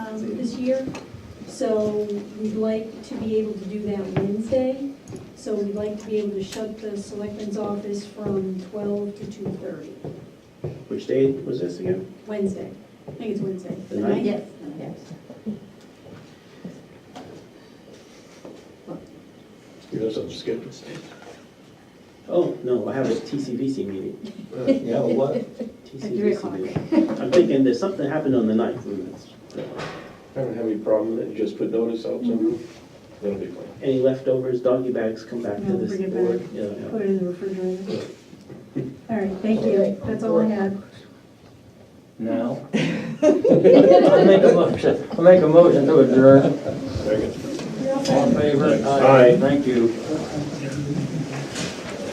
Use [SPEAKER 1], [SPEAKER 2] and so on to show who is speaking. [SPEAKER 1] um, this year. So we'd like to be able to do that Wednesday. So we'd like to be able to shut the selectmen's office from twelve to two thirty,
[SPEAKER 2] Which day was this again?
[SPEAKER 1] Wednesday. I think it's Wednesday.
[SPEAKER 2] The ninth?
[SPEAKER 1] ninth?
[SPEAKER 3] Yes.
[SPEAKER 4] You have something scheduled?
[SPEAKER 2] Oh, no, I have a TCVC meeting.
[SPEAKER 4] Yeah, what?
[SPEAKER 3] three
[SPEAKER 2] TCVC
[SPEAKER 3] o'clock.
[SPEAKER 2] meeting. I'm thinking there's something happened on the ninth, and that's-
[SPEAKER 4] I don't have any problem with it, just put notice out, so that'll be fine.
[SPEAKER 2] any leftovers, doggy bags, come back to
[SPEAKER 1] No,
[SPEAKER 2] this
[SPEAKER 1] bring it
[SPEAKER 2] board.
[SPEAKER 1] back.
[SPEAKER 2] Yeah, yeah.
[SPEAKER 1] Put it in the refrigerator. All right, thank you. That's all I had.
[SPEAKER 5] No. I'll make a motion, I'll make a motion to adjourn.
[SPEAKER 4] Very good.
[SPEAKER 5] All in favor?
[SPEAKER 4] Aye.
[SPEAKER 5] Thank you.